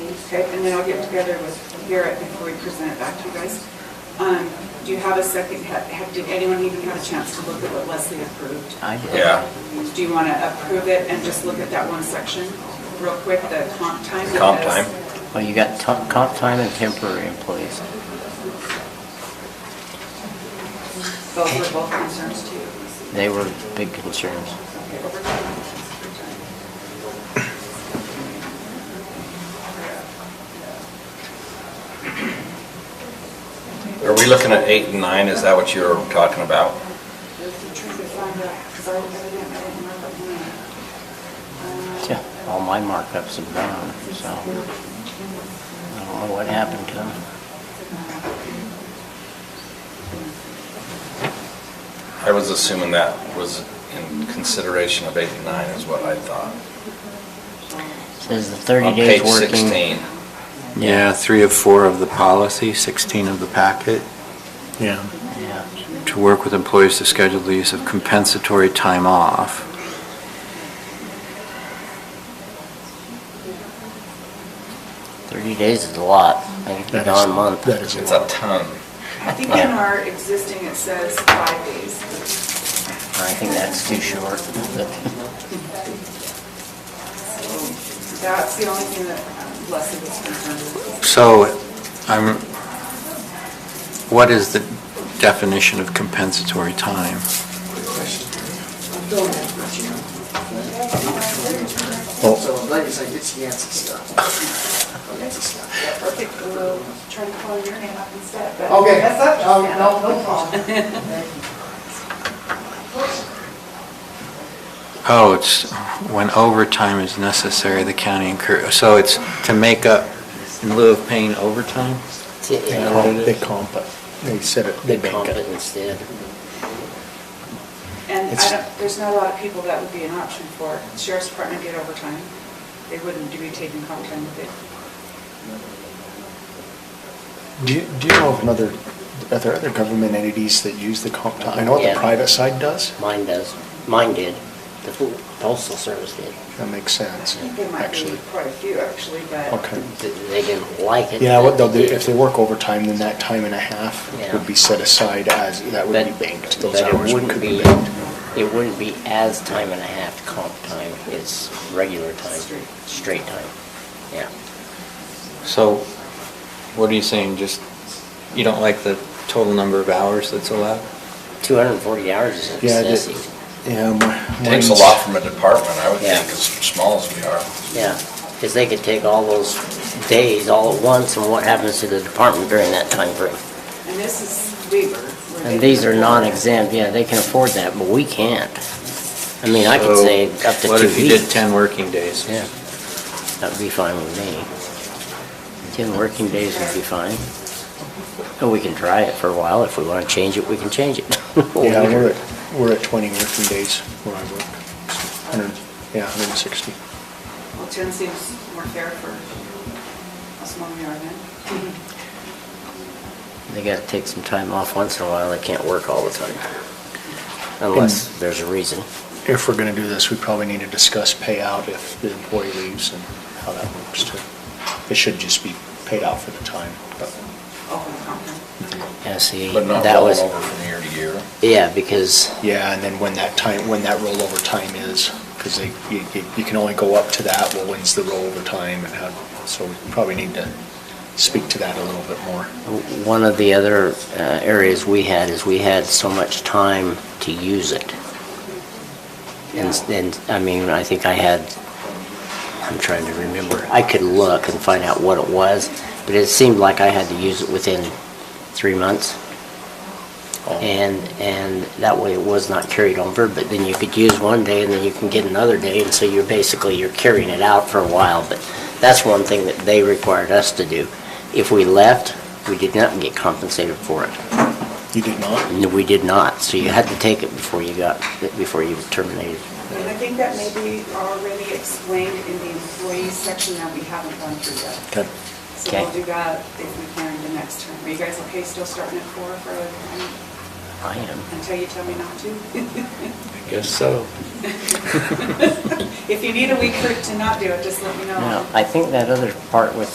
Okay, and then I'll get together with Garrett before we present it back to you guys. Um, Do you have a second, ha- have, did anyone even have a chance to look at what Leslie approved? I did. Yeah, Do you want to approve it and just look at that one section real quick, the comp time? Comp because- time. Well, you got to- comp time and temporary employees. Both were both concerns to you. They were big concerns. Okay, overtime, free time. are we looking at eight and nine, is that what you're talking about? There's the truth to find out, 'cause I evidently I didn't mark up mine. Yeah, All my markups are gone, so I don't know what happened to them. I was assuming that was in consideration of eight and nine is what I thought. Says the 30 days On page working. 16. Yeah, three of four of the policy, 16 of the packet. Yeah. Yeah. To work with employees to schedule the use of compensatory time off. Thirty days is a lot. I think That Don is- month. that is- It's a ton. Uh, I think in our existing, it says five days. I think that's too short. That's the only thing that um, Leslie was concerned with. So, I'm, what is the definition of compensatory time? So I'm glad you said it's Yancey stuff. Yancey stuff. Perfect, we'll try to call your name up instead, but. Okay, That's up to um, you. no, no problem. Oh, it's when overtime is necessary, the county incur, so it's to make up in lieu of paying overtime? They They comp- They comp it. They set it, they make bank it it. instead. And I It's- don't, there's not a lot of people that would be an option for. Sheriff's Department get overtime. They wouldn't be taking comp time with it. Do you, do you know of another, are there other government entities that use the comp time? I know what Yeah. the private side does. Mine does. Mine did. The postal service did. That makes sense, I think there might be actually. quite a few, actually, but. Okay. Th- They didn't like it. Yeah, what they'll do, but if they work overtime, then that time and a half Yeah. would be set aside as, that would be But- banked. Those but it hours wouldn't could be be- banked. It wouldn't be as time and a half comp time. It's regular time, Straight. straight time. Yeah. So, what are you saying, just, you don't like the total number of hours that's allowed? Two hundred and forty hours is Yeah, that- excessive. Yeah. It mi- Takes a mine's- lot from a department, I would Yeah. think, as small as we are. Yeah, because they could take all those days all at once, and what happens to the department during that time frame? And this is Weaver. where And they- these are non-exempt, yeah, they can afford that, but we can't. I mean, I could So, say up to two weeks. What if you did 10 working days? Yeah, that'd be fine with me. Ten working days would be fine. And we can try it for a while, if we want to change it, we can change it. Yeah, we're at, we're at 20 working days where I work. 100, yeah, 160. Well, ten seems more fair for us when we are then. Mm-hmm. They gotta take some time off once in a while, they can't work all the time. Unless there's a reason. If we're going to do this, we probably need to discuss payout if the employee leaves and how that works too. It should just be paid out for the time, but Open conference. Yeah, see, But not that roll was, over from year to year. yeah, because yeah, and then when that time, when that rollover time is, because they, you, you- you can only go up to that, well, when's the rollover time and how, so we probably need to speak to that a little bit more. One of the other uh, areas we had is we had so much time to use it. And, and, I mean, I think I had, I'm trying to remember, I could look and find out what it was, but it seemed like I had to use it within three months. And, and that way it was not carried over, but then you could use one day and then you can get another day, and so you're basically, you're carrying it out for a while, but that's one thing that they required us to do. If we left, we did not get compensated for it. You did not? And We did not, so you had to take it before you got, before you were terminated. And I think that may be already explained in the employees section that we haven't gone through yet. Okay. So we'll Okay. do that if we can the next term. Are you guys okay still starting at four for, um, I am. until you tell me not to? I guess so. If you need a week for, to not do it, just let me know. Now, I think that other part with